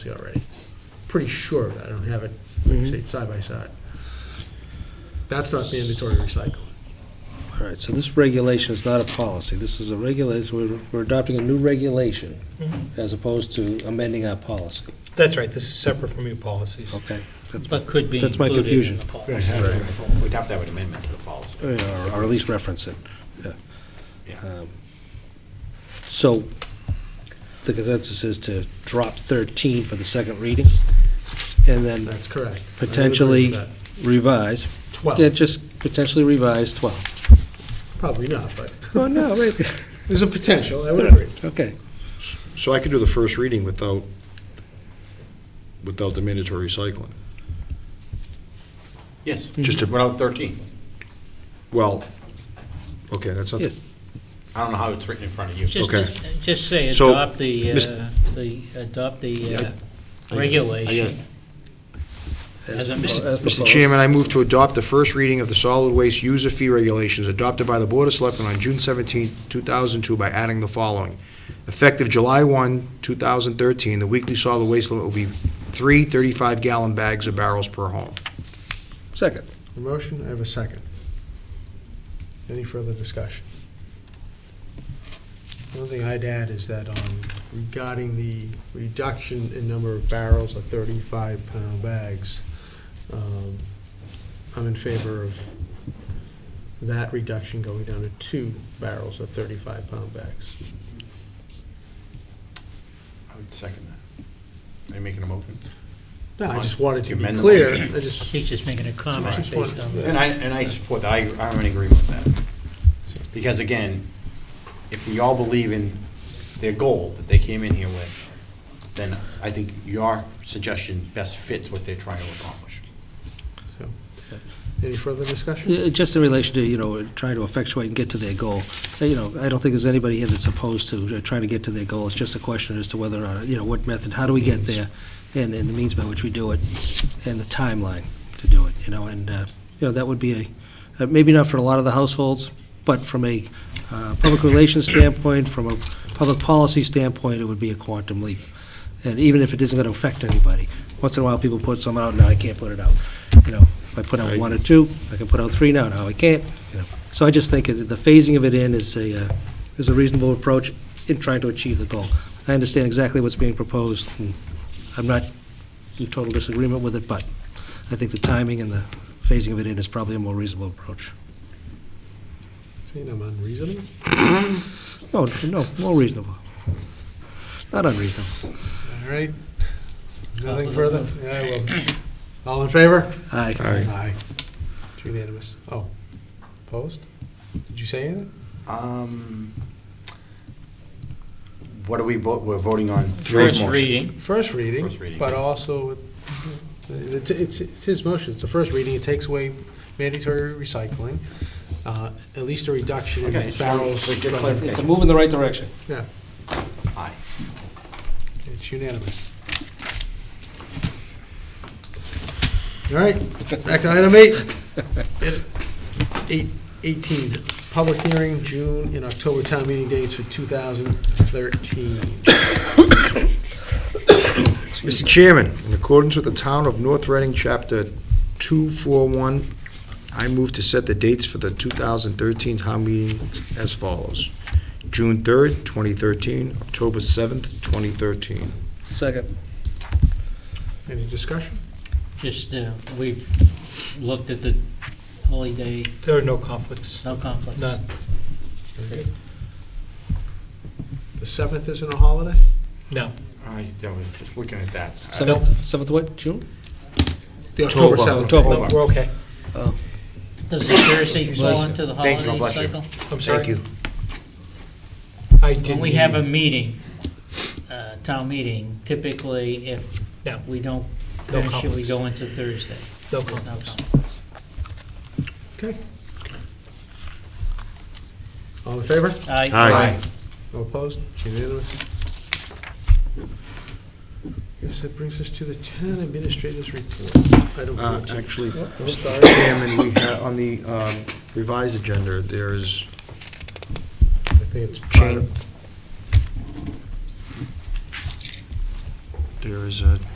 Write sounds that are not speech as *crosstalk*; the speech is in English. already. Pretty sure of that, I don't have it, like I say, it's side by side. That's not mandatory recycling. All right, so this regulation is not a policy. This is a regulation, we're, we're adopting a new regulation Mm-hmm. as opposed to amending our policy, That's right, this is separate from your policies, okay? That's, but could be That's my included confusion. in the policy. We'd have to have an amendment to the policy. or, or at least reference it, yeah. Yeah. Um, So, the consensus is to drop thirteen for the second reading, and then That's correct. I would agree with potentially that. revise, yeah, Twelve, just potentially revise twelve. *laughs* probably not, but Oh, no, wait, there's a potential, I would agree. okay, So I could do the first reading without, without the mandatory recycling? Yes. Just to- Without 13. Well, okay, that's not, yes. I don't know how it's written in front of you. Just, Okay. just say So, adopt the, uh, Mis- the, adopt the uh, I- regulation. As a- As Mr. proposed. Chairman, I move to adopt the first reading of the solid waste user fee regulations adopted by the Board of Selectmen on June 17, 2002 by adding the following. Effective July 1, 2013, the weekly solid waste limit will be three 35-gallon bags or barrels per home. Second, A motion, I have a second. Any further discussion? One thing I'd add is that um, regarding the reduction in number of barrels of 35-pound bags, um, I'm in favor of that reduction going down to two barrels of 35-pound bags. I would second that. Are you making a motion? No, I just wanted to You be amend the clear. motion. I just, He's just making a comment Just based one- on And that. I, and I support that, I, I'm in agreement with that. Because again, if we all believe in their goal that they came in here with, then I think your suggestion best fits what they're trying to accomplish. so. Any further discussion? Yeah, just in relation to, you know, trying to effectuate and get to their goal, Uh, you know, I don't think there's anybody here that's opposed to uh, trying to get to their goal, it's just a question as to whether, or not, you know, what method, how do we get there, and, and the means by which we do it, and the timeline to do it, you know, and, uh, you know, that would be a, uh, maybe not for a lot of the households, but from a uh, public relations standpoint, from a public policy standpoint, it would be a quantum leap, and even if it isn't going to affect anybody, once in a while, people put some out, now I can't put it out, you know, if I put out one or two, I can put out three now, now I can't, you know. So I just think that the phasing of it in is a, uh, is a reasonable approach in trying to achieve the goal. I understand exactly what's being proposed, and I'm not in total disagreement with it, but I think the timing and the phasing of it in is probably a more reasonable approach. Saying I'm unreasonable? No, no, more reasonable. Not unreasonable. All right. Nothing further? Yeah, I will. All in favor? Aye. Aye. It's unanimous. Oh, opposed? Did you say anything? Um, What are we, vo- we're voting on? three First motions. reading, First reading. First reading. But also, it's, it's it's his motion, it's the first reading, it takes away mandatory recycling, uh, at least a reduction Okay, in so barrels. we get from- clarification. It's a move in the right direction. Yeah, Aye. it's unanimous. All right, back to item eight. Eight, eighteen, public hearing, June and October town meeting dates for two thousand thirteen. Mr. Chairman, in accordance with the Town of North Reading, Chapter 241, I move to set the dates for the 2013 town meeting as follows. June 3rd, 2013, October 7th, 2013. Second. Any discussion? just, uh, we've looked at the holiday, there are no conflicts. no conflict. None. Very good. The seventh isn't a holiday? No. I I was just looking at that. Seventh, seventh what, June? The October seventh. October. We're okay. Oh. Does the Thursday fall me. into the Thank you, God holiday bless you. cycle? I'm Thank you. I When we have a meeting, uh, town meeting, typically if No. we don't No finish it, we go into Thursday. No There's conflicts. conflict. Okay. All in favor? Aye. Aye. All opposed? Unanimous? Yes, that brings us to the town administrator's report. Item Uh, 14. Actually, Oh, I'm sorry. Mr. Chairman, we have, on the um, revised agenda, there is I think it's part of- change. There is a